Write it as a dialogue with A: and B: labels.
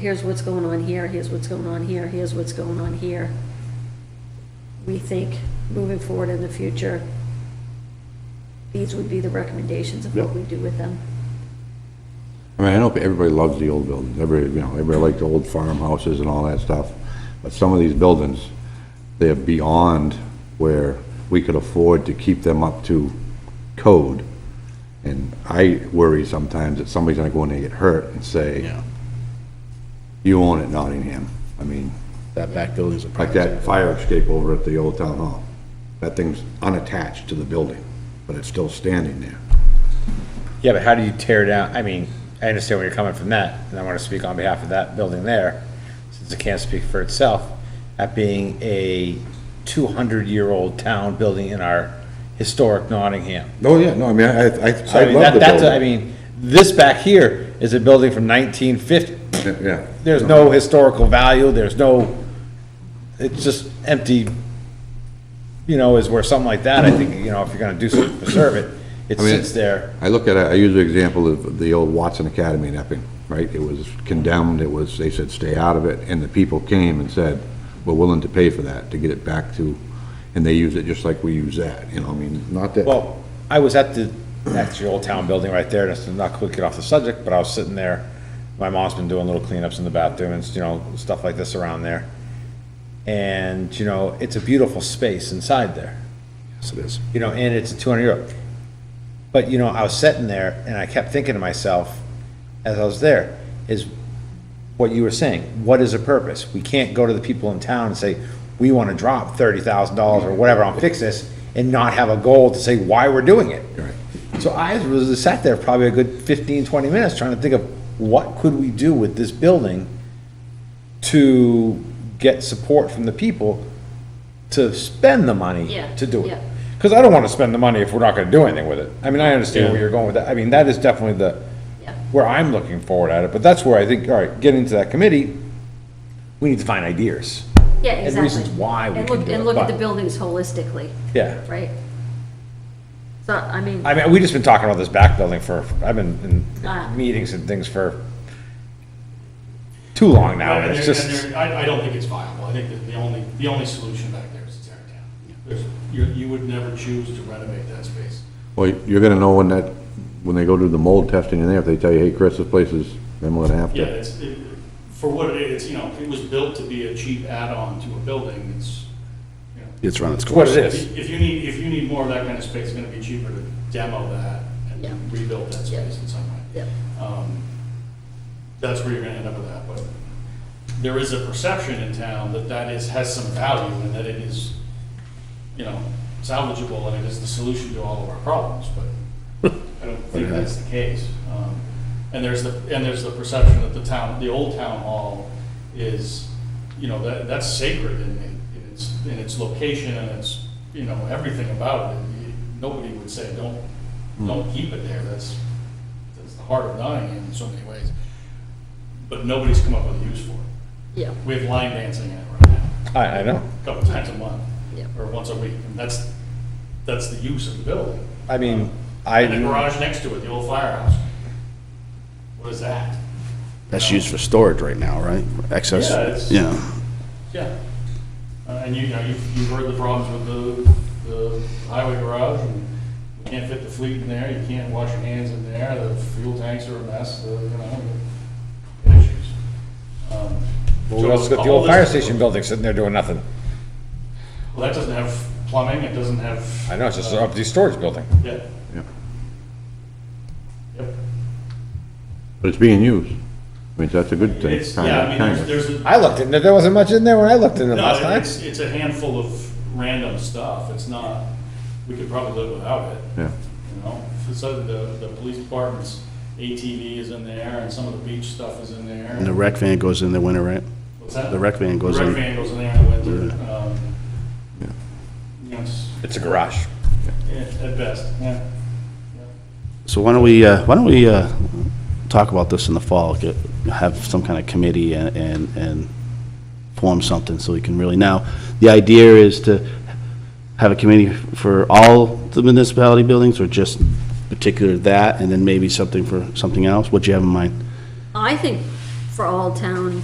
A: here's what's going on here, here's what's going on here, here's what's going on here. We think moving forward in the future, these would be the recommendations of what
B: Yep.
A: we do with them.
B: I mean, I know everybody loves the old buildings, everybody, you know, everybody liked the old farmhouses and all that stuff, but some of these buildings, they're beyond where we could afford to keep them up to code. And I worry sometimes that somebody's gonna go in there and get hurt and say,
C: Yeah,
B: you own it Nottingham. I mean,
C: that back building's a
B: like
C: private.
B: that fire escape over at the old town hall, that thing's unattached to the building, but it's still standing there.
D: Yeah, but how do you tear down, I mean, I understand where you're coming from that, and I want to speak on behalf of that building there, since it can't speak for itself, that being a two hundred year old town building in our historic Nottingham.
B: Oh, yeah, no, I mean, I, I, I
D: So I mean,
B: love
D: that,
B: the
D: that's, I
B: building.
D: mean, this back here is a building from nineteen fifty.
B: Yeah.
D: There's no historical value, there's no, it's just empty, you know, is where something like that, I think, you know, if you're gonna do something to preserve it, it
B: I mean-
D: sits there.
B: I look at, it- I use the example of the old Watson Academy in Epping, right? It was condemned, it was, they said, stay out of it, and the people came and said, we're willing to pay for that, to get it back to, and they use it just like we use that, you know, I mean, not that.
D: Well, I was at the, that's the old town building right there, that's not quick get off the subject, but I was sitting there. My mom's been doing little cleanups in the bathroom and, you know, stuff like this around there. And, you know, it's a beautiful space inside there,
C: Yes, it is.
D: you know, and it's a two hundred euro. But, you know, I was sitting there and I kept thinking to myself, as I was there, is what you were saying, what is the purpose? We can't go to the people in town and say, we wanna drop thirty thousand dollars or whatever on fix this and not have a goal to say why we're doing it.
B: Right.
D: So I was sat there probably a good 15, 20 minutes trying to think of what could we do with this building to get support from the people to spend the money
A: Yeah,
D: to do
A: yeah.
D: it. Because I don't want to spend the money if we're not going to do anything with it. I mean, I understand where
C: Yeah.
D: you're going with that. I mean, that is definitely the,
A: Yeah.
D: where I'm looking forward at it. But that's where I think, all right, getting to that committee, we need to find ideas.
A: Yeah,
D: And
A: exactly.
D: reasons why we
A: And
D: can
A: look-
D: do
A: And
D: it,
A: look at
D: but-
A: the buildings holistically,
D: Yeah.
A: right? So, I mean,
D: I mean, we just been talking about this back building for, I've been
A: Ah.
D: in meetings and things for too long now,
E: Right,
D: and
E: and
D: it's
E: there-
D: just,
E: and there- I, I don't think it's viable. I think that the only, the only solution back there is to tear it down. There's, you, you would never choose to renovate that space.
B: Well, you're gonna know when that, when they go do the mold testing in there, if they tell you, hey, Chris, this place is, then we're gonna have
E: Yeah,
B: to.
E: it's, it- for what it is, you know, it was built to be a cheap add-on to a building. It's, you know,
C: It's run its
D: what
C: course.
D: it is.
E: if if you need, if you need more of that kind of space, it's gonna be cheaper to demo that
A: Yeah.
E: and rebuild that
A: Yeah.
E: space in some way.
A: yeah,
E: Um, That's where you're gonna end up with that, but there is a perception in town that that is, has some value and that it is, you know, salvageable and it is the solution to all of our problems, but I don't think that's the case. Um, And there's the, and there's the perception that the town, the old town hall is, you know, that, that's sacred in, in in its, in its location and its, you know, everything about it. You- Nobody would say, don't, don't keep it there, that's, that's the heart of Nottingham in so many ways. But nobody's come up with a use for it.
A: yeah,
E: We have line dancing in it right now,
D: I, I know.
E: a couple times a month,
A: yeah.
E: or once a week, and that's, that's the use of the building.
D: I mean, I,
E: And the garage next to it, the old firehouse. What is that?
C: That's used for storage right now, right?
E: Yeah, it's-
C: Excess, yeah.
E: Yeah. Uh, And you, you know, you've, you've heard the problems with the, the highway garage, and you can't fit the fleet in there, you can't wash your hands in there, the fuel tanks are a mess, the, you know, issues. Um,
D: well, we
E: so
D: also got the
E: all
D: old
E: this-
D: fire station building sitting there doing nothing.
E: Well, that doesn't have plumbing, it doesn't have.
D: I know, it's just an
E: uh,
D: empty storage building.
E: Yeah,
B: Yeah.
E: yep.
B: But it's being used. I mean, that's a good thing.
E: It's,
B: kinda-
E: yeah, I mean,
B: kinda.
E: there's, there's a.
D: I looked in there, there wasn't much in there when I looked in there last
E: No,
D: time.
E: it's, it's a handful of random stuff, it's not, we could probably live without it.
B: Yeah.
E: You know, so the, the police department's ATV is in there and some of the beach stuff is in there.
C: And the rec van goes in the winter, right?
E: What's that?
C: the rec van goes
E: The
C: in.
E: rec van goes in there in the winter. um,
B: Yeah.
E: you know, it's-
D: It's a garage.
E: yeah, at best, yeah.
C: So why don't we, uh, why don't we uh, talk about this in the fall, get, have some kind of committee and- and, and form something so we can really, now, the idea is to have a committee for all the municipality buildings or just particular that, and then maybe something for something else? What do you have in mind?
A: I think for all town